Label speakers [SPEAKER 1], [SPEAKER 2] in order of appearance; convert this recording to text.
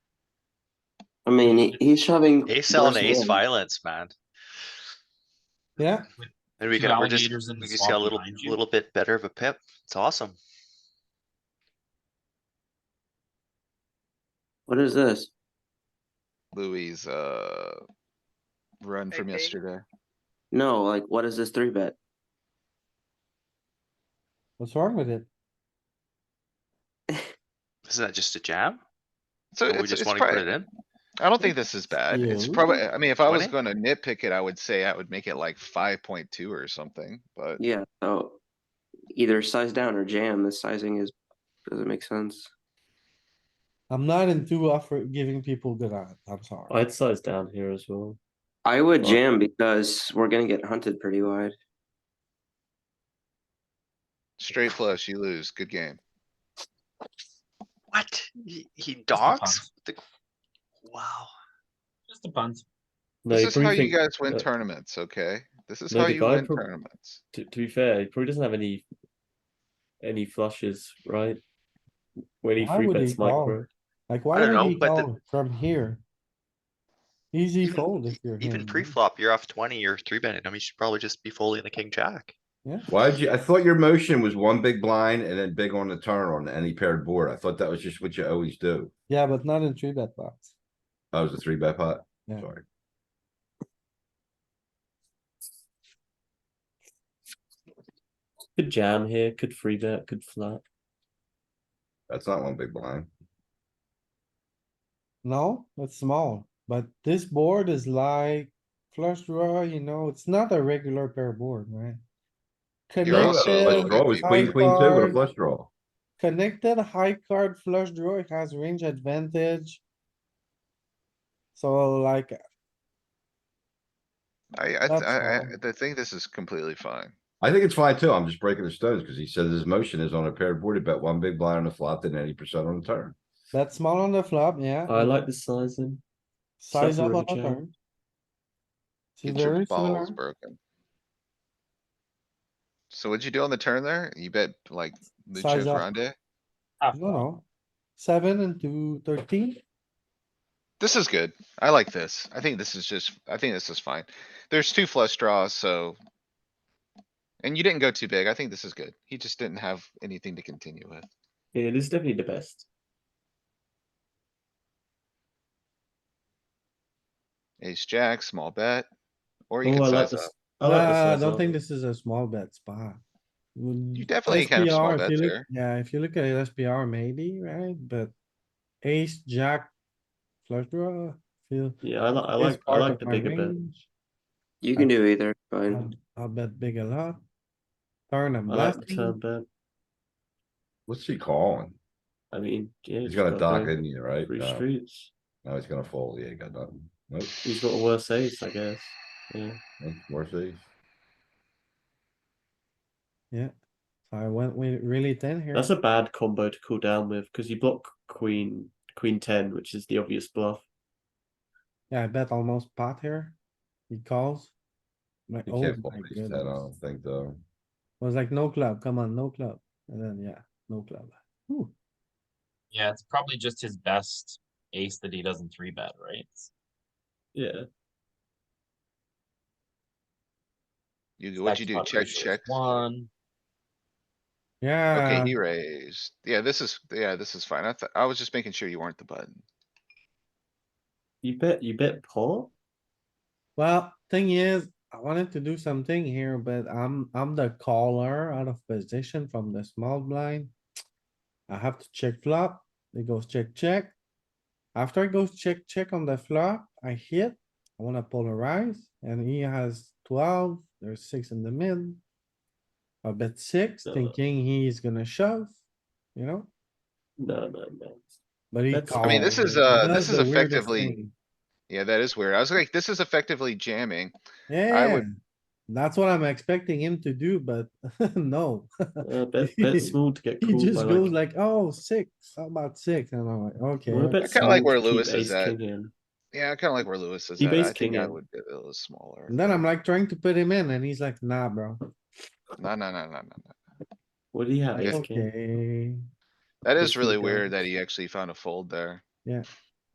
[SPEAKER 1] I mean, he- he's shoving.
[SPEAKER 2] Ace L and
[SPEAKER 1] worse
[SPEAKER 2] ace
[SPEAKER 1] than-
[SPEAKER 2] violence, man.
[SPEAKER 3] Yeah,
[SPEAKER 2] And we
[SPEAKER 4] Two
[SPEAKER 2] can, we're just,
[SPEAKER 4] alligators in
[SPEAKER 2] we
[SPEAKER 4] the
[SPEAKER 2] just got a
[SPEAKER 4] swamp
[SPEAKER 2] little,
[SPEAKER 4] behind you.
[SPEAKER 2] little bit better of a pip. It's awesome.
[SPEAKER 1] What is this?
[SPEAKER 5] Louis, uh, run from
[SPEAKER 6] Maybe.
[SPEAKER 5] yesterday.
[SPEAKER 1] No, like, what is this three bet?
[SPEAKER 3] what's wrong with it?
[SPEAKER 2] Isn't that just a jam?
[SPEAKER 5] So
[SPEAKER 2] Or we
[SPEAKER 5] it's,
[SPEAKER 2] just
[SPEAKER 5] it's
[SPEAKER 2] wanna put it
[SPEAKER 5] probably,
[SPEAKER 2] in?
[SPEAKER 5] I don't think this is bad. It's
[SPEAKER 3] Yeah.
[SPEAKER 5] probably, I mean, if I was
[SPEAKER 2] 20?
[SPEAKER 5] gonna nitpick it, I would say I would make it like five point two or something, but
[SPEAKER 1] Yeah, so either size down or jam, the sizing is, doesn't make sense.
[SPEAKER 3] I'm not into offer, giving people good odds, I'm sorry.
[SPEAKER 7] I'd size down here as well.
[SPEAKER 1] I would
[SPEAKER 7] Well-
[SPEAKER 1] jam because we're gonna get hunted pretty wide.
[SPEAKER 5] straight flush, you lose. Good game.
[SPEAKER 2] What? He, he
[SPEAKER 4] the
[SPEAKER 2] dogs?
[SPEAKER 4] funds.
[SPEAKER 2] The- Wow.
[SPEAKER 4] Just a punt.
[SPEAKER 7] No, he
[SPEAKER 5] This is how
[SPEAKER 7] probably
[SPEAKER 5] you
[SPEAKER 7] think,
[SPEAKER 5] guys win
[SPEAKER 7] uh,
[SPEAKER 5] tournaments, okay? This is
[SPEAKER 7] no,
[SPEAKER 5] how
[SPEAKER 7] the
[SPEAKER 5] you
[SPEAKER 7] guy
[SPEAKER 5] win
[SPEAKER 7] prob-
[SPEAKER 5] tournaments.
[SPEAKER 7] to, to be fair, he probably doesn't have any any flushes, right? When he
[SPEAKER 3] Why
[SPEAKER 7] three
[SPEAKER 3] would he
[SPEAKER 7] bets
[SPEAKER 3] call?
[SPEAKER 7] micro.
[SPEAKER 3] Like,
[SPEAKER 2] I
[SPEAKER 3] why
[SPEAKER 2] don't
[SPEAKER 3] would
[SPEAKER 2] know,
[SPEAKER 3] he
[SPEAKER 2] but the-
[SPEAKER 3] call from here? Easy
[SPEAKER 2] Even-
[SPEAKER 3] fold if you're him.
[SPEAKER 2] Even
[SPEAKER 3] right?
[SPEAKER 2] pre-flop, you're off twenty, you're three betting him. You should probably just be folding the king jack.
[SPEAKER 8] Why'd you, I thought your motion was one big blind and then big on the turn on any paired board. I thought that was just what you always do.
[SPEAKER 3] Yeah, but not in three bet box.
[SPEAKER 8] That was a three bet pot.
[SPEAKER 3] Yeah.
[SPEAKER 8] Sorry.
[SPEAKER 7] Could jam here, could three bet, could flat.
[SPEAKER 8] That's not one big blind.
[SPEAKER 3] No, it's small, but this board is like flush draw, you know, it's not a regular pair board, right?
[SPEAKER 5] You're
[SPEAKER 8] Draw,
[SPEAKER 5] also
[SPEAKER 8] flush
[SPEAKER 5] like-
[SPEAKER 3] Connected,
[SPEAKER 8] draw was queen,
[SPEAKER 3] high
[SPEAKER 8] queen two with a
[SPEAKER 3] card.
[SPEAKER 8] flush draw.
[SPEAKER 3] connected high card flush draw, it has range advantage. So like,
[SPEAKER 5] I, I,
[SPEAKER 3] That's
[SPEAKER 5] I, I,
[SPEAKER 3] fine.
[SPEAKER 5] I think this is completely fine.
[SPEAKER 8] I think it's fine too. I'm just breaking the stones because he said his motion is on a paired board. He bet one big blind on the flop, then eighty percent on the turn.
[SPEAKER 3] that's small on the flop, yeah.
[SPEAKER 7] I like the sizing.
[SPEAKER 3] Mm-hmm. Size up on
[SPEAKER 7] Suffer of a
[SPEAKER 3] the
[SPEAKER 7] jam.
[SPEAKER 3] turn. See,
[SPEAKER 5] Get your
[SPEAKER 3] very similar.
[SPEAKER 5] balls broken. So what'd you do on the turn there? You bet like Lucio
[SPEAKER 3] Size up.
[SPEAKER 5] Grande?
[SPEAKER 4] Half
[SPEAKER 3] No,
[SPEAKER 4] pot.
[SPEAKER 3] no. Seven into thirteen.
[SPEAKER 5] This is good. I like this. I think this is just, I think this is fine. There's two flush draws, so. And you didn't go too big. I think this is good. He just didn't have anything to continue with.
[SPEAKER 7] Yeah, this is definitely the best.
[SPEAKER 5] Ace, jack, small bet. Or you
[SPEAKER 7] Oh, I
[SPEAKER 5] can
[SPEAKER 7] like
[SPEAKER 5] size
[SPEAKER 7] this.
[SPEAKER 5] up.
[SPEAKER 7] I like the
[SPEAKER 3] Uh, I
[SPEAKER 7] size
[SPEAKER 3] don't
[SPEAKER 7] up.
[SPEAKER 3] think this is a small bet spot. Mm,
[SPEAKER 5] You definitely can have small
[SPEAKER 3] bet
[SPEAKER 5] bets there.
[SPEAKER 3] Yeah, if you look at SPR maybe, right? But ace, jack, flush draw, feel.
[SPEAKER 7] Yeah, I like I
[SPEAKER 3] is
[SPEAKER 7] like I
[SPEAKER 3] part
[SPEAKER 7] like
[SPEAKER 3] of
[SPEAKER 7] the
[SPEAKER 3] my
[SPEAKER 7] bigger bet.
[SPEAKER 3] range.
[SPEAKER 1] You can do either, fine.
[SPEAKER 3] Um, I'll bet big a lot. Turn and
[SPEAKER 7] I like the turn
[SPEAKER 3] bluffing.
[SPEAKER 7] bet.
[SPEAKER 8] What's he calling?
[SPEAKER 7] I mean, yeah.
[SPEAKER 8] He's
[SPEAKER 7] just
[SPEAKER 8] gonna
[SPEAKER 7] gotta
[SPEAKER 8] dock,
[SPEAKER 7] go
[SPEAKER 8] isn't he, right?
[SPEAKER 7] Three
[SPEAKER 5] uh,
[SPEAKER 8] No,
[SPEAKER 7] streets.
[SPEAKER 8] no, he's gonna fold. Yeah, he got nothing. Nope,
[SPEAKER 7] He's got a worse ace, I guess. Yeah.
[SPEAKER 8] nope, worth it.
[SPEAKER 3] So I went with really thin here.
[SPEAKER 7] That's a bad combo to cool down with because you block queen queen ten, which is the obvious bluff.
[SPEAKER 3] Yeah, I bet almost pot here. He calls. Like,
[SPEAKER 8] You
[SPEAKER 3] oh
[SPEAKER 8] can't fold
[SPEAKER 3] my
[SPEAKER 8] ace ten, I
[SPEAKER 3] goodness.
[SPEAKER 8] don't think though.
[SPEAKER 3] Was like, no club, come on, no club. And then, yeah, no club. Ooh,
[SPEAKER 4] Yeah, it's probably just his best ace that he doesn't three bet, right?
[SPEAKER 7] Yeah.
[SPEAKER 5] You, what'd you do?
[SPEAKER 4] Backstop
[SPEAKER 5] Check,
[SPEAKER 4] ratio is
[SPEAKER 5] check.
[SPEAKER 4] One.
[SPEAKER 3] yeah.
[SPEAKER 5] Okay, he raised. Yeah, this is, yeah, this is fine. I thought, I was just making sure you weren't the button.
[SPEAKER 7] You bet you bet pot?
[SPEAKER 3] Well, thing is, I wanted to do something here, but I'm, I'm the caller out of position from the small blind. I have to check flop. It goes check, check. After it goes check, check on the flop, I hit. I wanna polarize and he has twelve. There's six in the mid. I bet six,
[SPEAKER 7] Uh.
[SPEAKER 3] thinking he's gonna shove, you know,
[SPEAKER 7] No, no, no.
[SPEAKER 3] but he
[SPEAKER 7] That's-
[SPEAKER 3] called.
[SPEAKER 7] I mean,
[SPEAKER 5] this is,
[SPEAKER 3] He
[SPEAKER 5] uh,
[SPEAKER 3] does
[SPEAKER 5] this is
[SPEAKER 3] the weirdest
[SPEAKER 5] effectively-
[SPEAKER 3] thing.
[SPEAKER 5] Yeah, that is weird. I was like, this is effectively jamming.
[SPEAKER 3] Yeah,
[SPEAKER 5] would-
[SPEAKER 3] that's what I'm expecting him to do, but no.
[SPEAKER 7] Uh, bet bet small to get
[SPEAKER 3] He
[SPEAKER 7] called.
[SPEAKER 3] just
[SPEAKER 7] by,
[SPEAKER 3] goes
[SPEAKER 7] like,
[SPEAKER 3] like, oh, six, how about six? And I'm like, okay.
[SPEAKER 7] well, I bet
[SPEAKER 5] I kinda like
[SPEAKER 7] small
[SPEAKER 5] where
[SPEAKER 7] to keep
[SPEAKER 5] Lewis is
[SPEAKER 7] ace
[SPEAKER 5] at.
[SPEAKER 7] king in.
[SPEAKER 5] Yeah, I kinda like where Lewis is
[SPEAKER 7] He
[SPEAKER 5] at. I
[SPEAKER 7] based
[SPEAKER 5] think
[SPEAKER 7] king
[SPEAKER 5] I
[SPEAKER 7] in.
[SPEAKER 5] would do it a little smaller.
[SPEAKER 3] And then I'm like trying to put him in and he's like, nah, bro.
[SPEAKER 5] No, no, no, no, no, no.
[SPEAKER 7] What do you have?
[SPEAKER 5] Okay.
[SPEAKER 7] Ace king.
[SPEAKER 3] Okay.
[SPEAKER 5] That
[SPEAKER 7] Good
[SPEAKER 5] is
[SPEAKER 7] for
[SPEAKER 5] really
[SPEAKER 7] the
[SPEAKER 5] weird that
[SPEAKER 7] guys.
[SPEAKER 5] he actually found a fold there.
[SPEAKER 3] Yeah.